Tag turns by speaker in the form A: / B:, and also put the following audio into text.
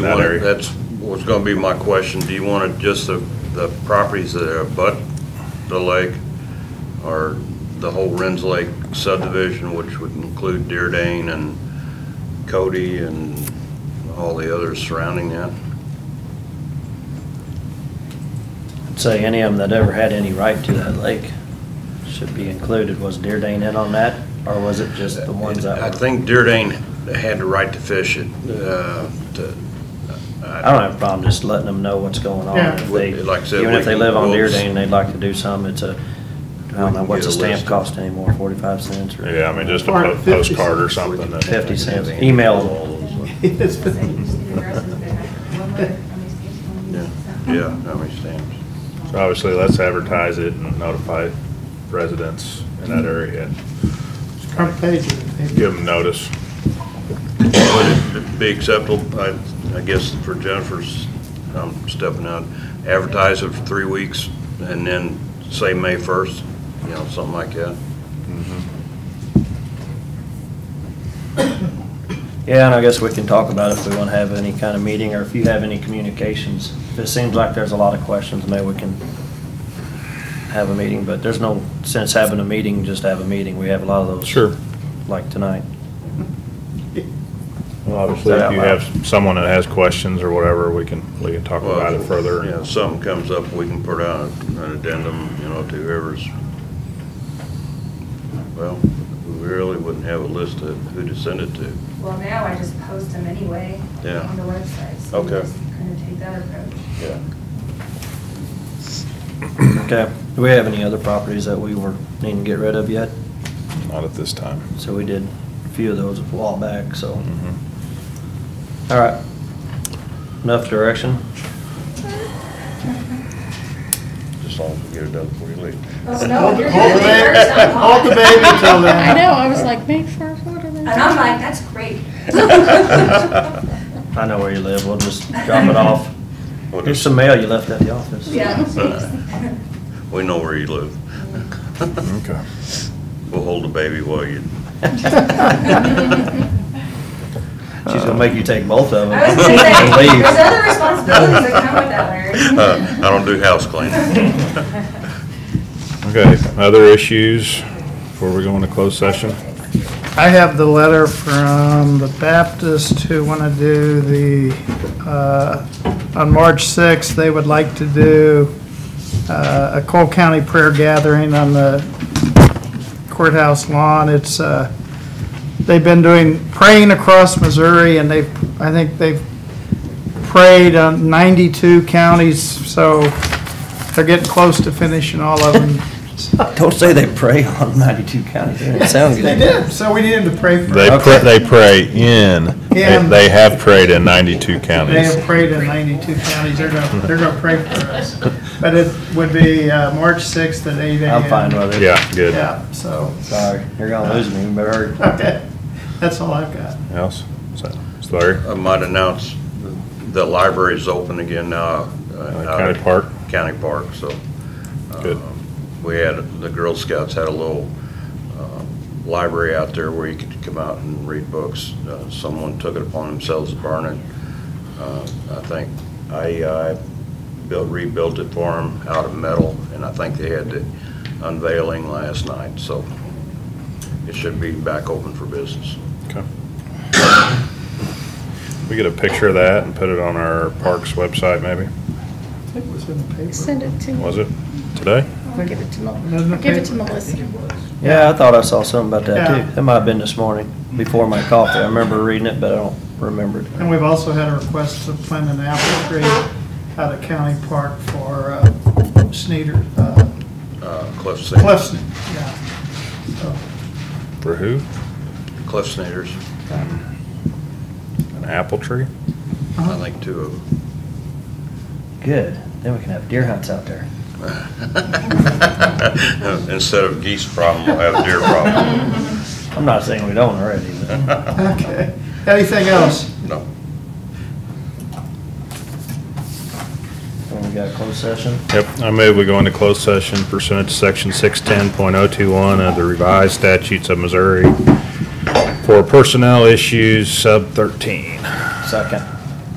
A: that
B: want it-
A: area.
B: That's, was gonna be my question, do you want it just the, the properties that abut the lake, or the whole Renz Lake subdivision, which would include Deerdane and Cody and all the others surrounding that?
C: Say any of them that ever had any right to that lake should be included. Was Deerdane in on that, or was it just the ones that
B: I
C: were?
B: think Deerdane had the right to fish it, uh, to.
C: I don't have a problem just letting them know what's going on.
D: Yeah.
C: If they,
B: Like I said,
C: even if
B: we
C: they
B: can-
C: live on
B: we'll-
C: Deerdane, they'd like to do some, it's a, I
B: We
C: don't know,
B: can get
C: what's a
B: a
C: stamp
B: list.
C: cost anymore, forty-five cents or?
A: Yeah, I mean, just a
D: Or
A: po-
D: 50
A: postcard or something. that-
C: Fifty cents, email them.
D: Yes.
E: Say you just do the rest of it, one letter from each person.
B: Yeah, yeah, how many stamps?
A: So Obviously, let's advertise it and notify residents in that area.
D: Front page. of the paper.
A: Give them notice.
B: Would it be acceptable, I, I guess for Jennifer's, I'm stepping out, advertise it for three weeks and then say May 1st, you know, something like that?
D: Mm-hmm.
C: Yeah, and I guess we can talk about if we want to have any kind of meeting, or if you have any communications. If it seems like there's a lot of questions, maybe we can have a meeting, but there's no sense having a meeting, just to have a meeting. We have a lot of those.
A: Sure.
C: Like tonight.
A: Well, obviously, if you have someone that has questions or whatever, we can, we can talk about it
B: You know,
A: further.
B: if something comes up, we can put out an addendum, you know, to whoever's, well, we really wouldn't have a list of who to send it to.
E: Well, now I just post them anyway
B: Yeah.
E: on the website. so you
B: Okay.
E: just Kind of take that approach.
B: Yeah.
C: Okay, do we have any other properties that we were needing to get rid of yet?
A: Not at this time.
C: So we did a few of those a while back, so,
A: Mm-hmm.
D: Mm-hmm.
C: all right. Enough direction?
B: Just long as we get it done before you leave.
E: Oh, no, you're
D: Hold the
E: doing it
D: baby-
E: first, I'm
D: Hold the baby until then.
F: I know, I was like, May first, what are they?
E: And I'm like, that's great.
C: I know where you live, we'll just drop it off.
B: We'll
C: Here's
B: just-
C: some mail you left at the office.
E: Yeah. jeez.
B: We know where you live.
A: Okay.
B: We'll hold the baby while you,
C: She's gonna make you take both of them.
E: I was gonna
C: and
E: say,
C: leave.
E: there's other responsibilities that come with that, Larry.
B: Uh, I don't do house cleaning.
A: Okay, other issues before we go into closed session?
D: I have the letter from the Baptist who want to do the, uh, on March 6th, they would like to do uh, a Cole County prayer gathering on the courthouse lawn. It's, uh, they've been doing, praying across Missouri, and they've, I think they've prayed on 92 counties, so they're getting close to finishing all of them.
C: Don't say they prey on ninety-two counties, it didn't sound
D: They
C: good.
D: did, so we need them to pray for
A: They pray, they pray in, they
D: In.
A: they have prayed in 92
D: They
A: counties.
D: have prayed in 92 counties, they're gonna, they're gonna pray for us. But it would be uh, March 6th at 8 a.m.
C: I'm fine with it.
A: Yeah, good.
D: Yeah, so,
C: Sorry, you're gonna lose me, but I heard-
D: okay, that's all I've got.
A: Else? So, Larry?
B: I might announce the library is open again now. uh, out
A: County
B: at
A: Park?
B: County Park, so.
A: Good.
B: um, We had, the Girl Scouts had a little um, library out there where you could come out and read books. Uh, Someone took it upon themselves to burn it. Uh, I think IEI built, rebuilt it for them out of metal, and I think they had the unveiling last night, so it should be back open for business.
A: Okay. We get a picture of that and put it on our parks website, maybe?
D: I think it was in the paper.
F: Send it to.
A: Was it today?
F: I'll give it to
D: Doesn't
F: Mel,
D: it
F: give it
D: pay-
F: to Melissa.
C: yeah, I thought I saw something about that
D: Yeah.
C: too. It might have been this morning, before my coffee. I remember reading it, but I don't remember it.
D: And we've also had a request to plant an apple tree out of County Park for uh, Sneeder, uh,
B: Uh, Cliff Sing-
D: Cliff Sne- yeah. So,
A: For who?
B: Cliff Snyder's,
A: An apple tree?
D: Uh-huh.
B: I think two of them.
C: Good, then we can have deer hunts out there.
B: Instead of geese problem, we'll have deer problem.
C: I'm not saying we don't already, but
D: Okay, anything else?
B: No.
C: we got a closed session.
A: Yep, I move we go into closed session pursuant to section 610.021 of the revised statutes of Missouri for personnel issues sub 13.
C: Second.